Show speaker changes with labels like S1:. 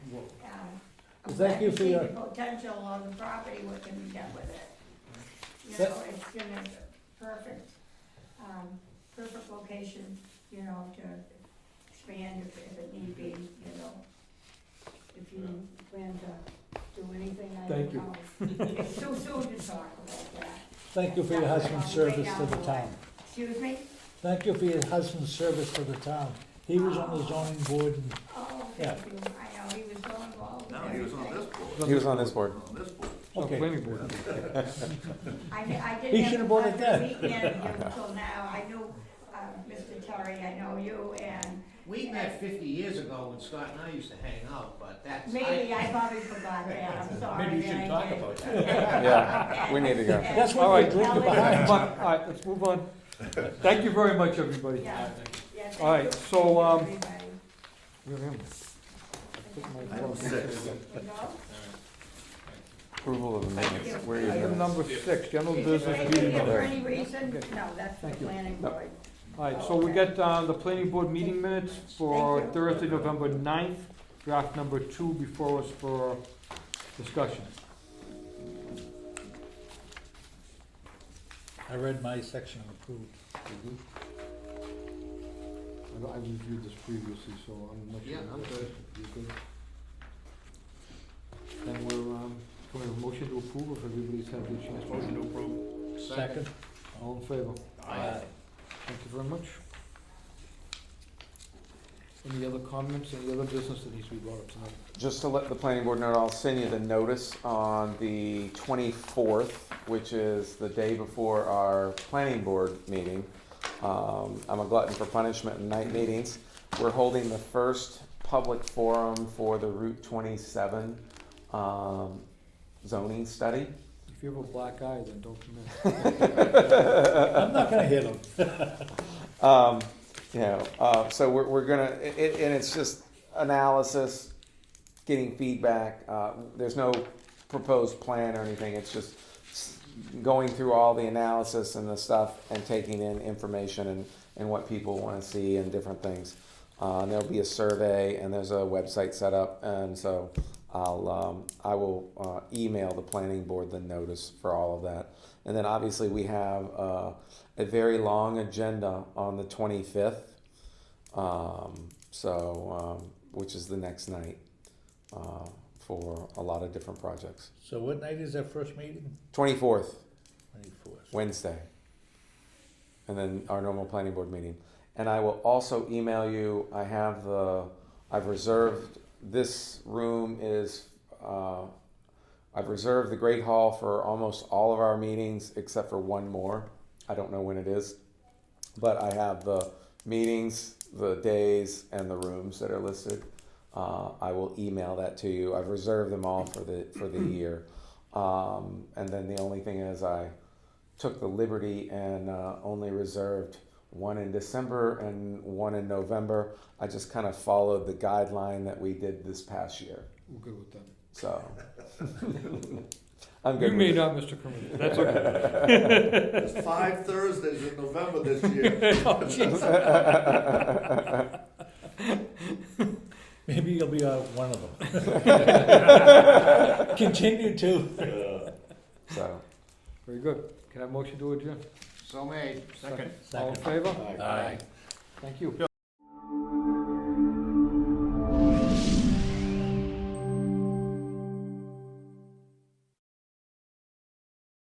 S1: Well, thank you for your-
S2: I can see the potential on the property, what can be done with it. You
S1: Tha-
S2: know, it's gonna, perfect, um, perfect location, you know, to expand if, if it need be, you know. If you plan to do anything, I don't
S1: Thank you.
S2: know. It's too soon to talk about that.
S1: Thank you for your husband's service to the town.
S2: Excuse me?
S1: Thank you for your husband's service to the town. He was on the zoning board and
S2: Oh,
S1: Yeah.
S2: thank you, I know, he was so involved. with
S3: No, he was on
S2: everything.
S3: this board,
S4: He was on this board.
S3: on this board.
S5: Oh,
S1: Okay.
S5: Planning board.
S2: I, kn- I
S1: He
S2: didn't have
S1: should've
S2: a
S1: bought it
S2: pleasure
S1: then.
S2: weekend until now, I knew, uh, Mr. Terry, I know you, and
S6: We met fifty years ago when Scott and I used to hang out, but that's.
S2: maybe I probably forgot that, I'm sorry.
S6: Maybe you
S2: that
S6: should
S2: I
S6: talk
S2: did.
S6: about
S4: Yeah, we need to go.
S1: that's
S5: All
S1: what
S5: right.
S1: we're drinking
S5: But,
S1: behind.
S5: all right, let's move on. Thank you very much, everybody.
S2: Yeah, yeah, thank
S5: All right,
S2: you.
S5: so, um,
S2: Everybody.
S5: Where am I?
S3: Item six.
S2: You know?
S4: Approval of the minutes. Where are you
S5: Item
S4: minutes?
S5: number six, general
S2: Is it
S5: business
S2: anything
S5: meeting.
S2: for
S5: All
S2: any reason?
S5: Okay.
S2: No, that's the
S5: Thank you.
S2: planning
S4: No.
S2: board.
S5: right, so we got uh, the planning board meeting minutes for
S2: Thank you.
S5: Thursday, November 9th. draft number two before us for discussion.
S1: I read my section and approved.
S5: Mm-hmm.
S7: I I reviewed this previously, so I'm not sure.
S6: Yeah, I'm good.
S7: You good?
S5: And we're, um, can we have a motion to approve if everybody's had the chance? Motion to approve.
S1: Second?
S5: All in favor?
S1: Aye.
S5: Thank you very much. Any other comments, any other business that needs to be brought up tonight?
S4: Just to let the planning board know, I'll send you the notice on the twenty-fourth, which is the day before our planning board meeting. Um, I'm a glutton for punishment in night meetings. We're holding the first public forum for the Route twenty-seven, um, zoning study.
S5: If you have a black eye, then don't come in.
S1: I'm not gonna hit him.
S4: Um, you know, uh, so we're, we're gonna, it, it- and it's just analysis, getting feedback. Uh, there's no proposed plan or anything. It's just s- going through all the analysis and the stuff and taking in information and, and what people want to see and different things. Uh, and there'll be a survey and there's a website set up. And so I'll, um, I will uh, email the planning board the notice for all of that. And then obviously we have uh, a very long agenda on the 25th, um, so um, which is the next night uh, for a lot of different projects.
S1: So what night is our first meeting?
S4: 24th,
S1: Twenty-fourth.
S4: Wednesday, and then our normal planning board meeting. And I will also email you. I have the. I've reserved this room is. Uh, I've reserved the Great Hall for almost all of our meetings except for one more. I don't know when it is, but I have the meetings, the days, and the rooms that are listed. Uh, I will email that to you. I've reserved them all for the for the year. Um, and then the only thing is I took the liberty and uh, only reserved one in December and one in November. I just kind of followed the guideline that we did this past year.
S7: We're good with that.
S4: So I'm
S5: You
S4: good.
S5: may
S4: with it.
S5: not, Mr. Kermit, that's okay.
S3: There's five Thursdays in November this year.
S1: Maybe you'll be uh, one of them. Continue to.
S4: So
S5: Very good. Can I have a motion to adjourn?
S6: So made.
S5: All in favor?
S1: Aye.
S5: Thank you.